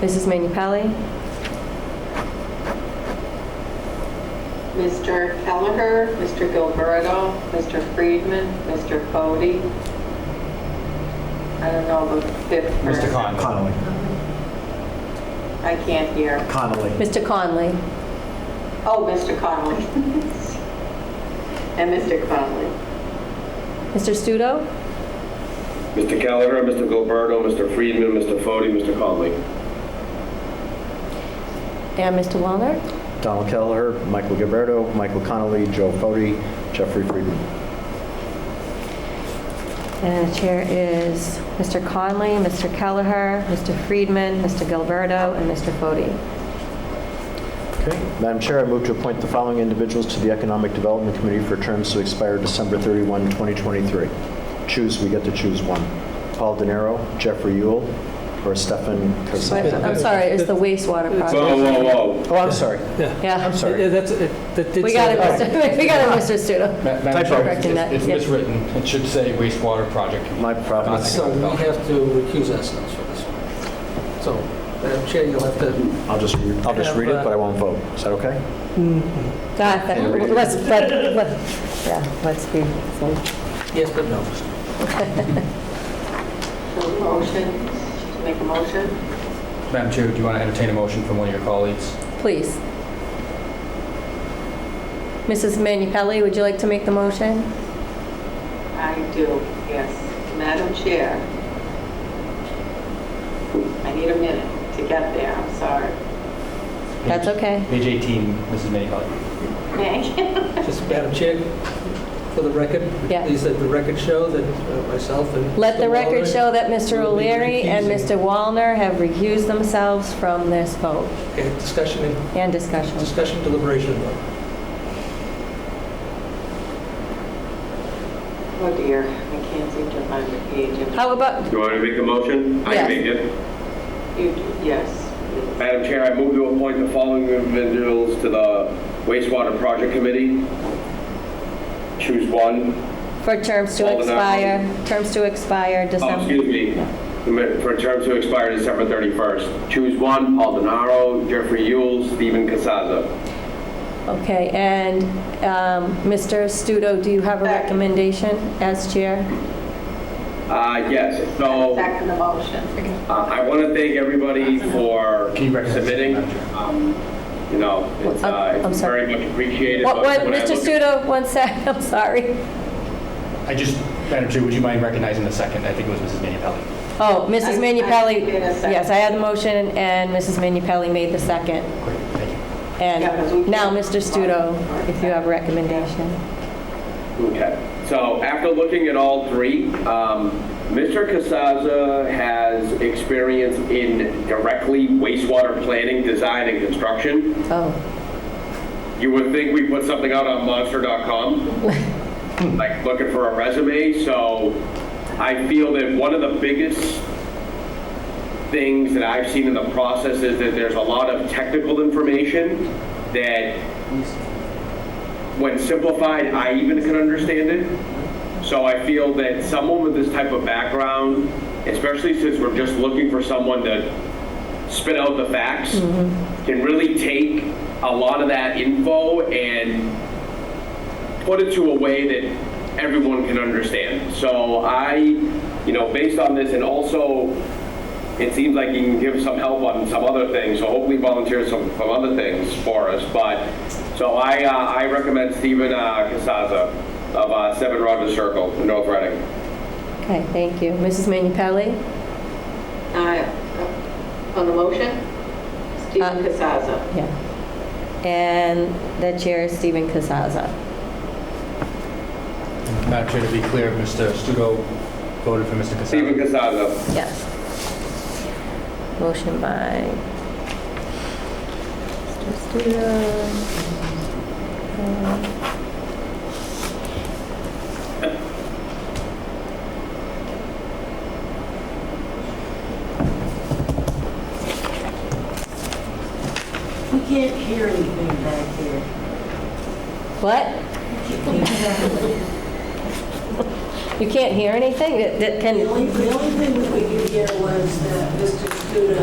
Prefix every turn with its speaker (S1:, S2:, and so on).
S1: Mrs. Manu Pelli,
S2: Mr. Kelleher, Mr. Gilberto, Mr. Friedman, Mr. Bodie. I don't know the fifth person.
S3: Mr. Conlon.
S4: Connolly.
S2: I can't hear.
S4: Connolly.
S1: Mr. Conley,
S2: Oh, Mr. Conley. And Mr. Conley.
S1: Mr. Studo,
S5: Mr. Gallagher, Mr. Gilberto, Mr. Friedman, Mr. Fode, Mr. Conley.
S1: and Mr. Wallner.
S4: Donald Kelleher, Michael Gilberto, Michael Connolly, Joe Fode, Jeffrey Friedman.
S1: And the chair is Mr. Conley, Mr. Kelleher, Mr. Friedman, Mr. Gilberto, and Mr. Fode.
S4: Okay. Madam Chair, I move to appoint the following individuals to the Economic Development Committee for terms to expire December 31, 2023. Choose, we get to choose one. Paul De Niro, Jeffrey Yule, or Stefan
S1: But
S4: Kasim.
S1: I'm sorry, it's the wastewater
S5: Whoa,
S1: project.
S5: whoa, whoa.
S4: Oh, I'm sorry.
S1: Yeah,
S4: I'm sorry. uh,
S6: Yeah, that's, it- that did
S1: we got
S6: say
S1: it,
S6: that.
S1: Mr. we got it, Mr. Studo.
S3: Ma- Madam Chair,
S1: Correcting that,
S3: it's- it's
S1: yeah.
S3: miswritten. It should say wastewater project. Committee.
S4: My problem.
S6: Uh, So we have to recuse ourselves for this one. So, Madam Chair, you'll have to,
S4: I'll just, re- I'll just read it, but I won't vote. Is that okay?
S1: Got that. Let's, let, let, yeah, let's be, so-
S6: yes, but no.
S2: So motion, make a motion?
S3: Madam Chair, do you want to entertain a motion from one of your colleagues?
S1: please. Mrs. Manu Pelli, would you like to make the motion?
S2: I do, yes. Madam Chair, I need a minute to get there, I'm sorry.
S1: That's okay.
S3: Page 18, Mrs. Minnie Pelli.
S2: Thank you.
S6: Just, Madam Chair, for the record,
S1: Yeah.
S6: please let the record show that uh, myself and...
S1: Let the
S6: Mr.
S1: record
S6: Wallner-
S1: show that Mr.
S6: will be
S1: O'Leary and
S6: recusing.
S1: Mr. Wallner have recused themselves from this vote
S6: Okay, discussion, and-
S1: and discussion.
S6: discussion deliberation and vote.
S2: Oh dear, I can't seem to find the page. in-
S1: How about,
S5: You want me to make a motion? I can
S1: Yes.
S5: make
S2: You
S5: it.
S2: do- Yes.
S5: Madam Chair, I move to appoint the following individuals to the wastewater project committee. Choose one.
S1: for terms to
S5: Alderman
S1: expire, terms to expire
S5: Oh,
S1: December?
S5: excuse me, for terms to expire December 31st. Choose one, Paul DeNaro, Jeffrey Yule, Stephen Casaza.
S1: Okay, and um, Mr. Studo, do you have a
S2: Second.
S1: recommendation as chair?
S5: Uh, yes, so...
S2: Second the motion.
S5: Uh, I want to thank everybody for
S3: Can you recognize
S5: submitting.
S3: the manager?
S5: Um, You know, it's
S1: Uh,
S5: uh,
S1: I'm
S5: it's
S1: sorry.
S5: very much appreciated.
S1: What,
S5: but
S1: what,
S5: when I
S1: Mr.
S5: look at-
S1: Studo, one sec, I'm sorry.
S3: I just, Madam Chair, would you mind recognizing the second? I think it was Mrs. Minnie Pelli.
S1: Oh, Mrs.
S2: I-
S1: Manu
S2: I
S1: Pelli,
S2: made a second.
S1: yes, I had the motion, and Mrs. Manu Pelli made the second.
S3: Great, thank you.
S2: Yeah, 'cause we
S1: And
S2: can't-
S1: now, Mr. Studo, if you have a recommendation.
S5: Okay. So after looking at all three, um, Mr. Casaza has experience in directly wastewater planning, design, and construction.
S1: Oh,
S5: You would think we put something out on monster.com, like looking for a resume, so I feel that one of the biggest things that I've seen in the process is that there's a lot of technical information that, when simplified, I even can understand it. So I feel that someone with this type of background, especially since we're just looking for someone to spit out the facts can really take a lot of that info and put it to a way that everyone can understand. So I, you know, based on this and also it seems like you can give some help on some other things, so hopefully volunteer some, some other things for us. But, so I, uh, I recommend Stephen uh, Casaza of uh, Seven Rogers Circle in North Reading.
S1: okay, thank you. Mrs. Manu Pelli?
S2: Aye. On the motion?
S7: Uh,
S2: Stephen Casaza.
S1: Yeah. And the chair is Stephen Casaza.
S3: Madam Chair, to be clear, Mr. Studo voted for Mr. Casaza.
S5: Stephen Casaza.
S1: Yes. Motion by Mr. Studo.
S7: We can't hear anything back here.
S1: What? You can't hear anything? It- it Can
S7: The only, the only thing that we could hear was that Mr. Studo